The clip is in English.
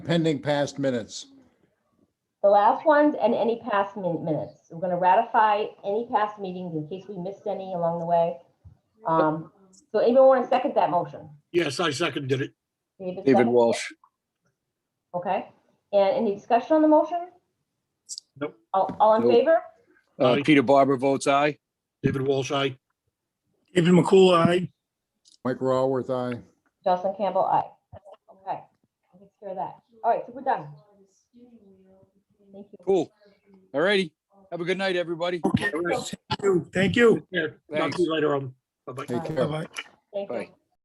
pending past minutes. The last ones and any past min- minutes. We're going to ratify any past meetings in case we missed any along the way. Um, So anyone want to second that motion? Yes, I seconded it. David second? Walsh. Okay. And any discussion on the motion? Nope. All, all in Nope. favor? Uh, Aye. Peter Barber votes aye. David Walsh, aye. David McCool, aye. Mike Raworth, aye. Jocelyn Campbell, aye. Okay. Let's hear that. All right, so we're done. Thank you. Cool. All righty. Have a good night, everybody. Okay, thank you, thank you. Yeah, talk Thanks. to you later on. Bye-bye. Take care. Bye-bye. Thank you. Bye.